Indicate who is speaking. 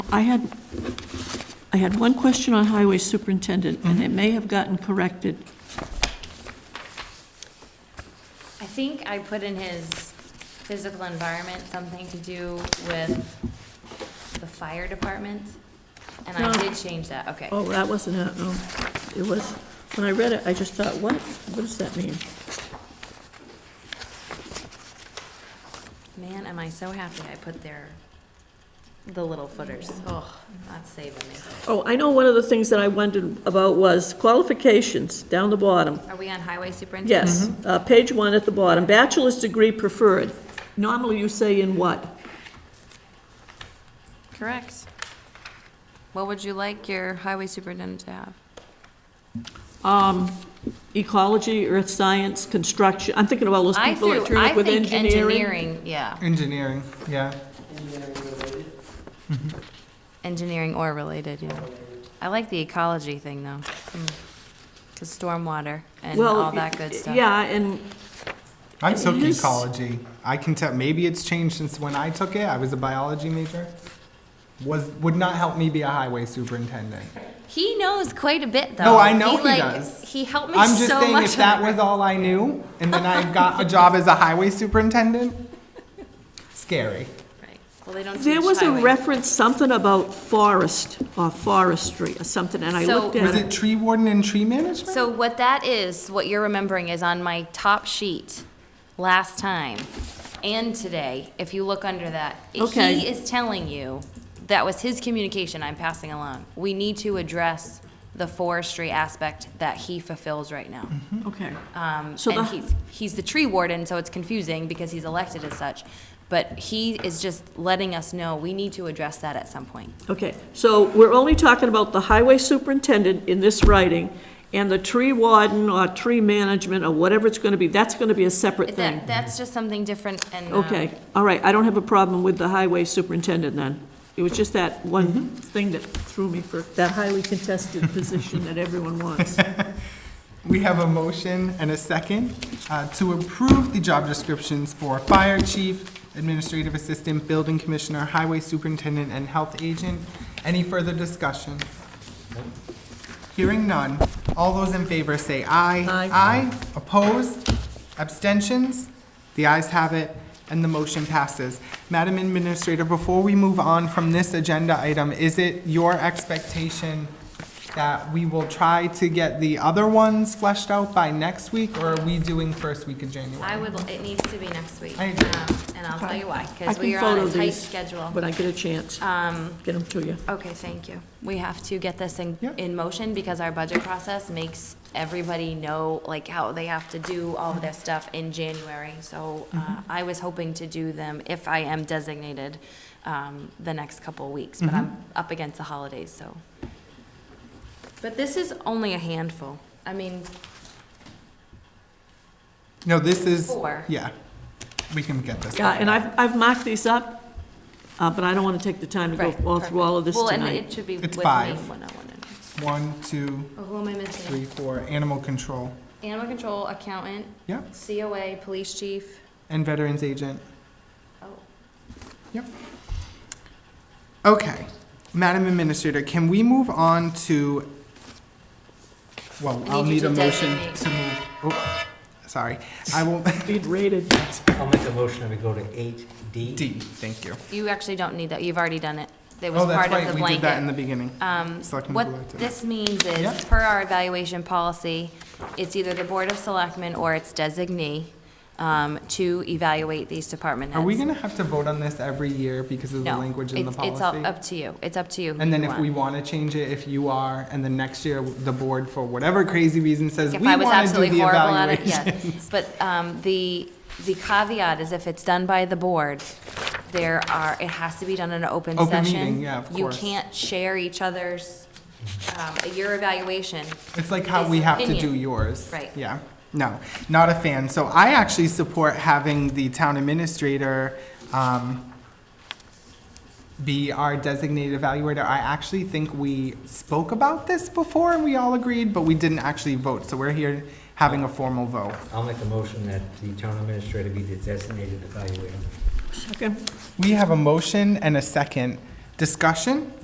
Speaker 1: I had, I had one question on highway superintendent, and it may have gotten corrected.
Speaker 2: I think I put in his physical environment something to do with the fire department, and I
Speaker 1: No.
Speaker 2: did change that, okay.
Speaker 1: Oh, that wasn't it, no. It was, when I read it, I just thought, what, what does that mean?
Speaker 2: Man, am I so happy I put their, the little footers, oh, that's saving me.
Speaker 1: Oh, I know one of the things that I wondered about was qualifications, down the bottom.
Speaker 2: Are we on highway superintendent?
Speaker 1: Yes, uh, page one at the bottom, bachelor's degree preferred. Normally you say in what?
Speaker 2: Correct. What would you like your highway superintendent to have?
Speaker 1: Um, ecology, earth science, construction, I'm thinking of all those
Speaker 2: I
Speaker 1: people that
Speaker 2: threw,
Speaker 1: turn
Speaker 2: I
Speaker 1: up with
Speaker 2: think
Speaker 1: engineering.
Speaker 2: engineering, yeah,
Speaker 3: Engineering, yeah.
Speaker 2: engineering or related, yeah. I like the ecology thing, though. Because stormwater and
Speaker 1: Well,
Speaker 2: all that good stuff.
Speaker 1: Yeah, and,
Speaker 3: I took
Speaker 1: It is-
Speaker 3: ecology. I can tell, maybe it's changed since when I took it. I was a biology major. Was, would not help me be a highway superintendent.
Speaker 2: He knows quite a bit, though.
Speaker 3: No, I know he
Speaker 2: like,
Speaker 3: does.
Speaker 2: He helped me
Speaker 3: I'm just
Speaker 2: so
Speaker 3: saying
Speaker 2: much.
Speaker 3: if that
Speaker 2: on
Speaker 3: was all I knew and then I got a job as a highway superintendent, scary.
Speaker 2: Right. Well, they don't
Speaker 1: there
Speaker 2: teach
Speaker 1: was a
Speaker 2: highway.
Speaker 1: reference, something about forest or forestry or something, and I
Speaker 2: So-
Speaker 1: looked
Speaker 3: Was
Speaker 1: at it.
Speaker 3: it tree warden and tree management?
Speaker 2: So what that is, what you're remembering is on my top sheet last time and today, if you look under that.
Speaker 1: Okay.
Speaker 2: He is telling you, that was his communication I'm passing along. We need to address the forestry aspect that he fulfills right now.
Speaker 1: Okay,
Speaker 2: Um,
Speaker 1: So
Speaker 2: and
Speaker 1: the-
Speaker 2: he's, he's the tree warden, so it's confusing because he's elected as such. But he is just letting us know, we need to address that at some point.
Speaker 1: okay. So we're only talking about the highway superintendent in this writing, and the tree warden or tree management or whatever it's gonna be, that's gonna be a separate thing.
Speaker 2: That, that's just something different and. um,
Speaker 1: Okay, all right, I don't have a problem with the highway superintendent then. It was just that one thing that threw me for that highly contested position that everyone wants.
Speaker 3: We have a motion and a second uh, to approve the job descriptions for fire chief, administrative assistant, building commissioner, highway superintendent, and health agent. Any further discussion? Hearing none. All those in favor say aye.
Speaker 1: Aye.
Speaker 3: Aye. Opposed? Abstentions? The ayes have it, and the motion passes. Madam Administrator, before we move on from this agenda item, is it your expectation that we will try to get the other ones fleshed out by next week, or are we doing first week of
Speaker 2: I
Speaker 3: January?
Speaker 2: would, it needs to be next week.
Speaker 3: I agree.
Speaker 2: um, And I'll tell you why,
Speaker 1: I
Speaker 2: because we
Speaker 1: can
Speaker 2: are on
Speaker 1: follow
Speaker 2: a tight
Speaker 1: these
Speaker 2: schedule. Um,
Speaker 1: when I get a chance. Get them to you.
Speaker 2: Okay, thank you. We have to get this in,
Speaker 3: Yep.
Speaker 2: in motion because our budget process makes everybody know, like, how they have to do all of their stuff in January. So uh,
Speaker 1: Mm-hmm.
Speaker 2: I was hoping to do them, if I am designated, um, the next couple of weeks, but
Speaker 1: Mm-hmm.
Speaker 2: I'm up against the holidays, so. But this is only a handful. I mean,
Speaker 3: No, this is,
Speaker 2: four.
Speaker 3: yeah, we can get this.
Speaker 1: Yeah, and I've, I've marked these up, uh, but I don't want to take the time to go
Speaker 2: Right,
Speaker 1: all through all of this
Speaker 2: Well, and it
Speaker 1: tonight.
Speaker 2: should be with
Speaker 3: It's
Speaker 2: me. oh
Speaker 3: five.
Speaker 2: when I wanna know.
Speaker 3: One, two,
Speaker 2: Oh, who am I missing?
Speaker 3: three, four, animal control,
Speaker 2: Animal control, accountant,
Speaker 3: yep,
Speaker 2: COA, police chief.
Speaker 3: and veterans agent.
Speaker 2: Oh,
Speaker 3: Yep. Okay, Madam Administrator, can we move on to, well,
Speaker 2: I
Speaker 3: I'll
Speaker 2: need
Speaker 3: need
Speaker 2: you to
Speaker 3: a motion
Speaker 2: designate.
Speaker 3: to move, oh, sorry. I will,
Speaker 1: Being rated.
Speaker 4: I'll make a motion that we go to eight D.
Speaker 3: D, thank you.
Speaker 2: you actually don't need that. You've already done it. It was
Speaker 3: Oh, that's
Speaker 2: part
Speaker 3: right,
Speaker 2: of the
Speaker 3: we did that in the
Speaker 2: blanket.
Speaker 3: beginning.
Speaker 2: Um,
Speaker 3: Selectman
Speaker 2: what
Speaker 3: Goulart did
Speaker 2: this means is,
Speaker 3: Yep.
Speaker 2: per our evaluation policy, it's either the Board of Selectmen or its designee, um, to evaluate these department heads.
Speaker 3: Are we gonna have to vote on this every year because of the
Speaker 2: No,
Speaker 3: language in the
Speaker 2: it's- It's all
Speaker 3: policy?
Speaker 2: up to you. It's up to you. who
Speaker 3: And then
Speaker 2: you
Speaker 3: if we
Speaker 2: want.
Speaker 3: wanna change it, if you are, and then next year, the board, for whatever crazy reason, says, we
Speaker 2: If I was
Speaker 3: wanna do
Speaker 2: absolutely
Speaker 3: the
Speaker 2: horrible at it,
Speaker 3: evaluation.
Speaker 2: yes. But um, the, the caveat is if it's done by the board, there are, it has to be done in an open session.
Speaker 3: Open meeting, yeah, of course.
Speaker 2: You can't share each other's, um, your evaluation.
Speaker 3: It's like how
Speaker 2: It's
Speaker 3: we have to do
Speaker 2: opinion.
Speaker 3: yours.
Speaker 2: Right.
Speaker 3: Yeah. No, not a fan. So I actually support having the town administrator um, be our designated evaluator. I actually think we spoke about this before and we all agreed, but we didn't actually vote. So we're here having a formal vote.
Speaker 4: I'll make a motion that the town administrator be the designated evaluator.
Speaker 1: Second.
Speaker 3: We have a motion and a second. Discussion?